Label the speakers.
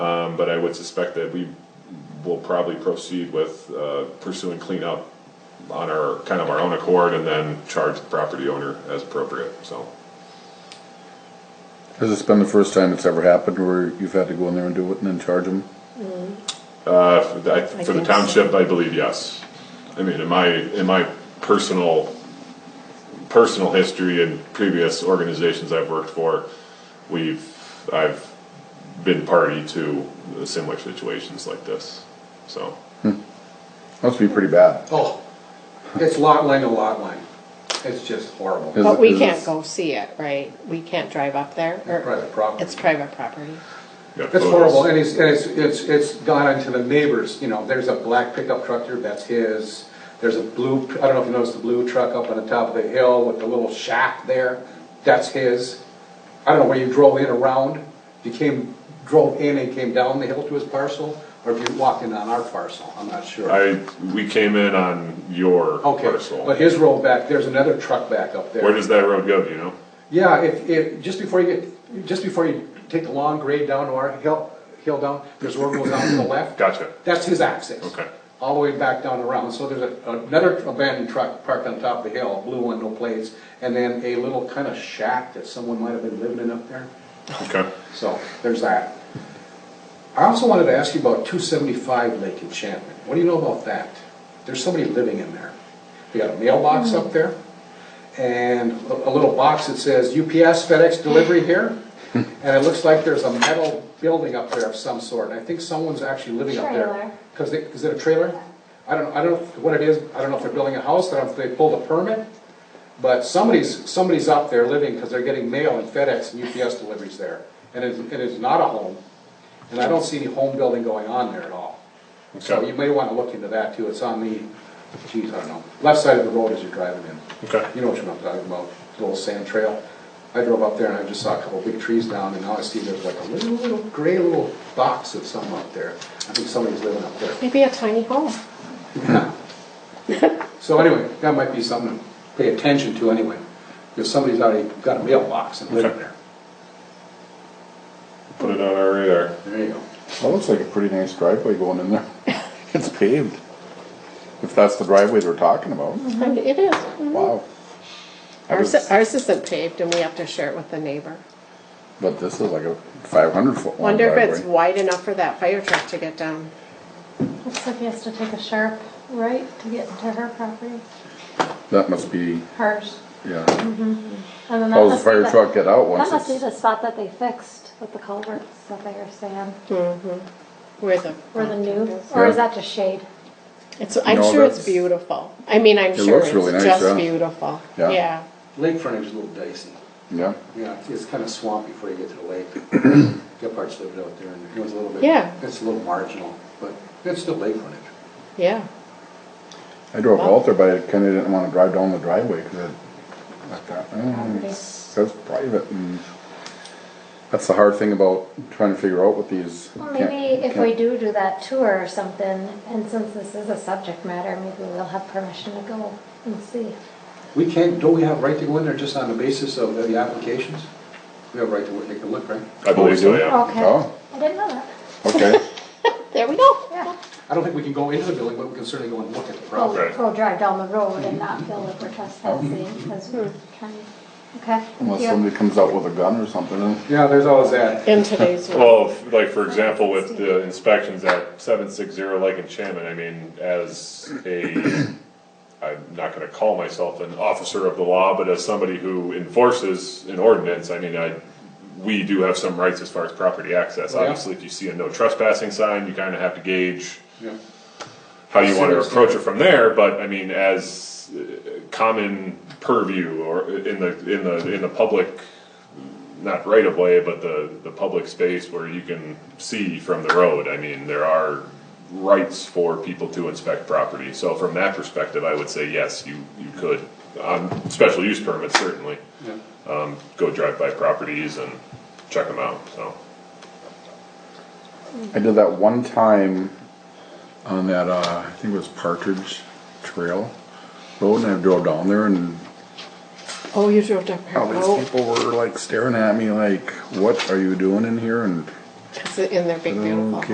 Speaker 1: Um, but I would suspect that we will probably proceed with, uh, pursuing cleanup on our, kind of our own accord and then charge the property owner as appropriate, so.
Speaker 2: Has this been the first time it's ever happened where you've had to go in there and do it and then charge them?
Speaker 1: Uh, for the- I- for the
Speaker 3: think so.
Speaker 1: township, I believe, yes. I mean, in my, in my personal, personal history and previous organizations I've worked for, we've, I've been party to similar situations like this, so.
Speaker 2: Must be pretty bad.
Speaker 4: Oh, it's lot line to lot line. It's just horrible.
Speaker 2: Is
Speaker 3: But
Speaker 2: it-
Speaker 3: we
Speaker 2: is
Speaker 3: can't
Speaker 2: it-
Speaker 3: go see it, right? We can't drive up there? or-
Speaker 4: Private property.
Speaker 3: It's private property.
Speaker 1: yeah,
Speaker 4: It's
Speaker 1: photos.
Speaker 4: horrible, and it's, and it's, it's, it's gone onto the neighbors, you know, there's a black pickup truck there, that's his. There's a blue, I don't know if you noticed the blue truck up on the top of the hill with the little shack there, that's his. I don't know where you drove in around, you came, drove in and came down the hill to his parcel, or if you walked in on our parcel, I'm not sure.
Speaker 1: I, we came in on your
Speaker 4: Okay,
Speaker 1: parcel.
Speaker 4: but his road back, there's another truck back up there.
Speaker 1: Where does that road go, do you know?
Speaker 4: Yeah, if, if, just before you get, just before you take the long grade down to our hill, hill down, there's a road goes down to the left.
Speaker 1: Gotcha.
Speaker 4: That's his access.
Speaker 1: Okay.
Speaker 4: All the way back down around, so there's a- another abandoned truck parked on top of the hill, blue one, no plates, and then a little kind of shack that someone might have been living in up there,
Speaker 1: Okay.
Speaker 4: so there's that. I also wanted to ask you about two seventy-five Lake Enchantment, what do you know about that? There's somebody living in there, they got a mailbox up there, and a a little box that says UPS, FedEx delivery here, and it looks like there's a metal building up there of some sort, and I think someone's actually living up there.
Speaker 5: Trailer.
Speaker 4: Cause they, is it a trailer? I don't, I don't know what it is, I don't know if they're building a house, I don't know if they pulled a permit, but somebody's, somebody's up there living, cause they're getting mail and FedEx and UPS deliveries there, and it, it is not a home, and I don't see any home building going on there at all. So
Speaker 1: Okay.
Speaker 4: you may wanna look into that too, it's on the, geez, I don't know, left side of the road as you're driving in.
Speaker 1: Okay.
Speaker 4: You know what I'm talking about, the little sand trail. I drove up there and I just saw a couple big trees down and now I see there's like a little, little gray little box of something up there. I think somebody's living up there.
Speaker 3: Maybe a tiny home.
Speaker 4: So anyway, that might be something to pay attention to anyway, because somebody's already got a mailbox and living
Speaker 1: Okay.
Speaker 4: there.
Speaker 1: Put it on our radar.
Speaker 4: There you go.
Speaker 2: That looks like a pretty nice driveway going in there. It's paved. If that's the driveway they're talking about,
Speaker 5: Mm-hmm.
Speaker 3: And It is. mhm.
Speaker 2: wow. I
Speaker 3: Ours,
Speaker 2: was-
Speaker 3: ours isn't paved and we have to share it with the neighbor.
Speaker 2: But this is like a five hundred foot long
Speaker 3: Wonder if it's
Speaker 2: driveway.
Speaker 3: wide enough for that fire truck to get down.
Speaker 5: Looks like he has to take a sharp right to get to her property,
Speaker 2: That must be,
Speaker 5: hers.
Speaker 2: yeah.
Speaker 5: And then that
Speaker 2: How does
Speaker 5: must
Speaker 2: the
Speaker 5: be
Speaker 2: fire truck get out
Speaker 5: That
Speaker 2: once
Speaker 5: must be
Speaker 2: it's?
Speaker 5: the spot that they fixed with the culverts that they were saying,
Speaker 3: Where the.
Speaker 5: or the new, or is that just shade?
Speaker 3: It's, I'm
Speaker 2: No,
Speaker 3: sure it's
Speaker 2: that's-
Speaker 3: beautiful. I mean, I'm
Speaker 2: It
Speaker 3: sure
Speaker 2: looks really
Speaker 3: it's
Speaker 2: nice,
Speaker 3: just
Speaker 2: yeah.
Speaker 3: beautiful.
Speaker 2: Yeah.
Speaker 3: Yeah.
Speaker 4: Lake frontage is a little dicey.
Speaker 2: Yeah,
Speaker 4: Yeah, it's- it's kind of swampy before you get to the lake. Gephardt's lived out there and it was a little bit.
Speaker 3: Yeah.
Speaker 4: It's a little marginal, but it's still lake frontage.
Speaker 3: Yeah.
Speaker 2: I drove out there, but I kinda didn't wanna drive down the driveway, cause it, I thought, oh, it's, that's private and. That's the hard thing about trying to figure out what these.
Speaker 5: Well,
Speaker 2: can't-
Speaker 5: maybe if
Speaker 2: can't-
Speaker 5: we do do that tour or something, and since this is a subject matter, maybe we'll have permission to go and see.
Speaker 4: We can't, don't we have right to go in there just on the basis of the applications? We have right to take a look, right?
Speaker 1: I believe so, yeah.
Speaker 5: Okay.
Speaker 2: Oh.
Speaker 5: I didn't know that.
Speaker 2: Okay,
Speaker 3: There we go.
Speaker 5: Yeah.
Speaker 4: I don't think we can go into the building, but we can certainly go and look at the
Speaker 5: We'll,
Speaker 4: property.
Speaker 1: Okay.
Speaker 5: we'll drive down the road and not feel like we're trespassing because we're trying, okay?
Speaker 2: unless
Speaker 5: Yeah.
Speaker 2: somebody comes out with a gun or something.
Speaker 4: Yeah, there's always that.
Speaker 3: In today's world.
Speaker 1: Well, if- like for example, with the inspections at seven six zero Lake Enchantment, I mean, as a, I'm not gonna call myself an officer of the law, but as somebody who enforces an ordinance, I mean, I, we do have some rights as far as property access.
Speaker 4: Oh, yeah.
Speaker 1: Obviously, if you see a no trespassing sign, you kinda have to gauge
Speaker 4: Yeah.
Speaker 1: how you wanna
Speaker 4: Serious.
Speaker 1: approach it from there, but I mean, as uh, common purview or uh, in the, in the, in the public, not right of way, but the, the public space where you can see from the road, I mean, there are rights for people to inspect property, so from that perspective, I would say, yes, you, you could, on special use permits certainly,
Speaker 4: Yeah.
Speaker 1: um, go drive by properties and check them out, so.
Speaker 2: I did that one time on that, uh, I think it was Partridge Trail Road, and I drove down there, and
Speaker 3: Oh, you drove down here.
Speaker 2: all these
Speaker 3: Oh.
Speaker 2: people were like staring at me, like, "What are you doing in here?" And
Speaker 6: It's in their big beautiful.
Speaker 2: Mm.
Speaker 3: Okay.